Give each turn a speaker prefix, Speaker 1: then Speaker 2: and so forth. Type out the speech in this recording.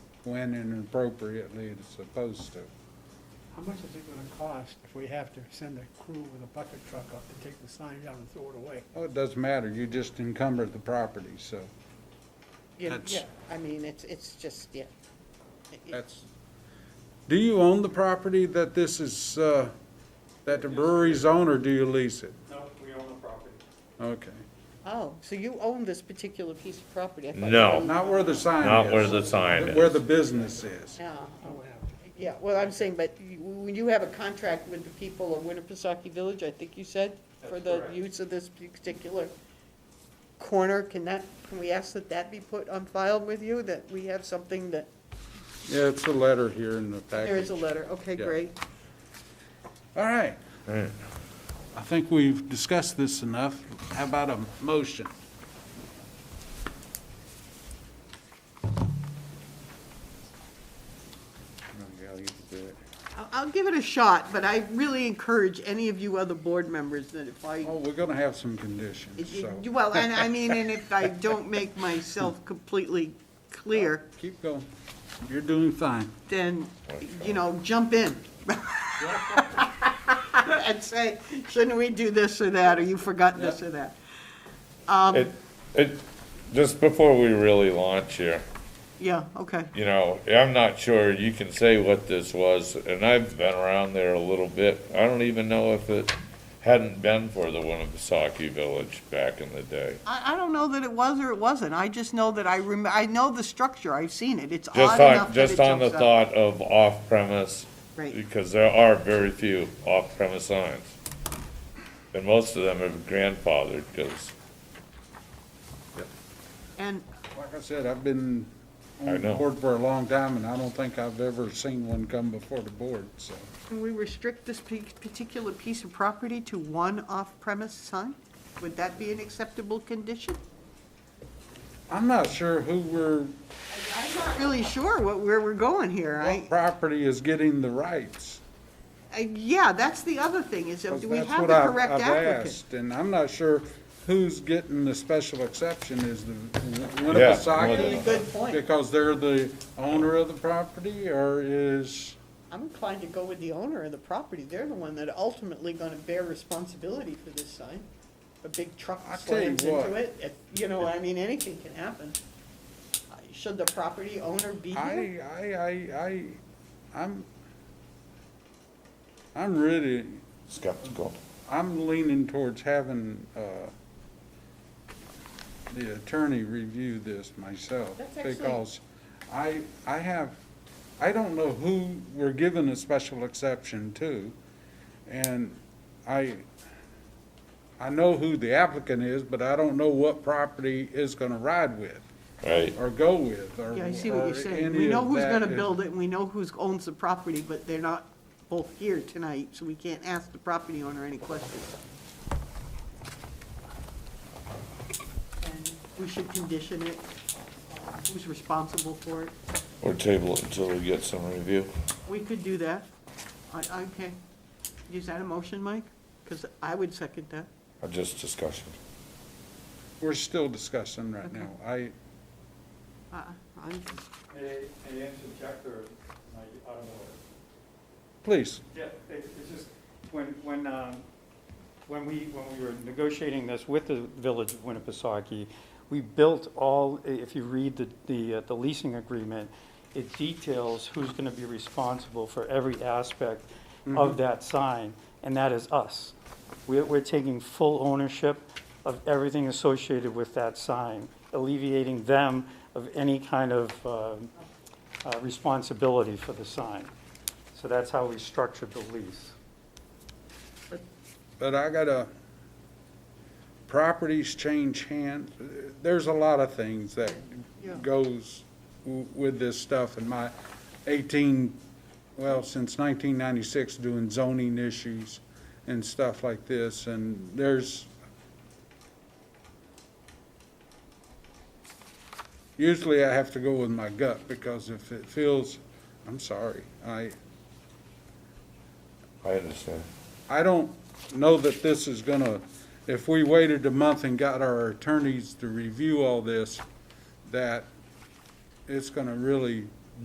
Speaker 1: when and appropriately it's supposed to.
Speaker 2: How much is it gonna cost if we have to send a crew with a bucket truck up to take the sign down and throw it away?
Speaker 1: Well, it doesn't matter, you just encumber the property, so
Speaker 3: You know,
Speaker 1: That's- Uh,
Speaker 3: Yeah, I mean, it's, it's just, yeah. It- it-
Speaker 1: that's. Do you own the property that this is, uh, that the brewery's on, or do you lease it?
Speaker 4: No, we own the property.
Speaker 1: Okay.
Speaker 3: Oh, so you own this particular piece of property? I thought you
Speaker 5: No.
Speaker 3: owned-
Speaker 1: Not where the sign is.
Speaker 5: Not where the sign
Speaker 1: Where
Speaker 5: is.
Speaker 1: the business is.
Speaker 3: Yeah,
Speaker 2: Oh, wow.
Speaker 3: yeah, well, I'm saying, but you- when you have a contract with the people of Winnipesaukee Village, I think you said, for
Speaker 4: That's
Speaker 3: the
Speaker 4: correct.
Speaker 3: use of this particular corner, can that, can we ask that that be put on file with you, that we have something that,
Speaker 1: Yeah, it's a letter here in the package.
Speaker 3: there is a letter, okay,
Speaker 1: Yeah.
Speaker 3: great.
Speaker 1: All right. I think we've discussed this enough. How about a motion?
Speaker 3: I'll, I'll give it a shot, but I really encourage any of you other board members that if I
Speaker 1: Oh, we're gonna have some conditions,
Speaker 3: It- it-
Speaker 1: so
Speaker 3: Well, and I mean, and if I don't make myself completely clear,
Speaker 1: keep going. You're doing fine.
Speaker 3: then, you know, jump in. And say, shouldn't we do this or that, or you forgot this or that?
Speaker 5: It, it, just before we really launch here,
Speaker 3: Yeah, okay.
Speaker 5: you know, I'm not sure, you can say what this was, and I've been around there a little bit. I don't even know if it hadn't been for the Winnipesaukee Village back in the day.
Speaker 3: I, I don't know that it was or it wasn't, I just know that I rem, I know the structure, I've seen it, it's odd
Speaker 5: Just
Speaker 3: enough
Speaker 5: on,
Speaker 3: that it
Speaker 5: just on the
Speaker 3: jumps out.
Speaker 5: thought of off-premise,
Speaker 3: Right,
Speaker 5: because there are very few off-premise signs. And most of them are grandfathered, because
Speaker 3: and,
Speaker 1: Like I said, I've been
Speaker 5: I
Speaker 1: on the
Speaker 5: know.
Speaker 1: board for a long time, and I don't think I've ever seen one come before the board, so.
Speaker 3: can we restrict this pe- particular piece of property to one off-premise sign? Would that be an acceptable condition?
Speaker 1: I'm not sure who we're,
Speaker 3: I'm not really sure what, where we're going here. I,
Speaker 1: what property is getting the rights.
Speaker 3: I, yeah, that's the other thing, is that
Speaker 1: 'cause
Speaker 3: do we
Speaker 1: that's
Speaker 3: have
Speaker 1: what
Speaker 3: the
Speaker 1: I've-
Speaker 3: correct
Speaker 1: I've
Speaker 3: applicant?
Speaker 1: asked, And I'm not sure who's getting the special exception is the
Speaker 5: more than
Speaker 1: Winnipesaukee.
Speaker 5: enough.
Speaker 3: Good point.
Speaker 1: Because they're the owner of the property, or is,
Speaker 3: I'm inclined to go with the owner of the property. They're the one that ultimately gonna bear responsibility for this sign. A big truck
Speaker 1: I'll tell you
Speaker 3: slams into
Speaker 1: what.
Speaker 3: it, it- you know, I mean, anything can happen. Uh, Should the property owner be here?
Speaker 1: I, I, I, I, I'm, I'm really,
Speaker 5: skeptical.
Speaker 1: I'm leaning towards having, uh, the attorney review this myself.
Speaker 3: That's excellent.
Speaker 1: Because I, I have, I don't know who we're giving a special exception to. And I, I know who the applicant is, but I don't know what property is gonna ride with
Speaker 5: Right,
Speaker 1: or go with or.
Speaker 3: Yeah, I see what
Speaker 1: or
Speaker 3: you're saying.
Speaker 1: any
Speaker 3: We know
Speaker 1: of
Speaker 3: who's
Speaker 1: that
Speaker 3: gonna
Speaker 1: is-
Speaker 3: build it, and we know who owns the property, but they're not both here tonight, so we can't ask the property owner any questions. And We should condition it, who's responsible for it.
Speaker 5: or table it until we get some review.
Speaker 3: We could do that. I, I- okay. Is that a motion, Mike? Because I would second that.
Speaker 5: Or just discussion.
Speaker 1: We're still discussing right now. I,
Speaker 3: Uh, I'm,
Speaker 4: May I may I interject or, am I out of order?
Speaker 1: please,
Speaker 4: Yeah, it- it's just, when, when, um, when we, when we were negotiating this with the Village of Winnipesaukee, we built all, i- if you read the, the, uh, the leasing agreement, it details who's gonna be responsible for every aspect of that sign, and that is us. We're, we're taking full ownership of everything associated with that sign, alleviating them of any kind of, um, uh, responsibility for the sign. So that's how we structured the lease.
Speaker 1: but I gotta, properties change hands. There's a lot of things that
Speaker 3: Yeah.
Speaker 1: goes w- with this stuff in my eighteen, well, since nineteen ninety-six, doing zoning issues and stuff like this, and there's usually I have to go with my gut, because if it feels, I'm sorry, I,
Speaker 5: I understand.
Speaker 1: I don't know that this is gonna, if we waited a month and got our attorneys to review all this, that it's gonna really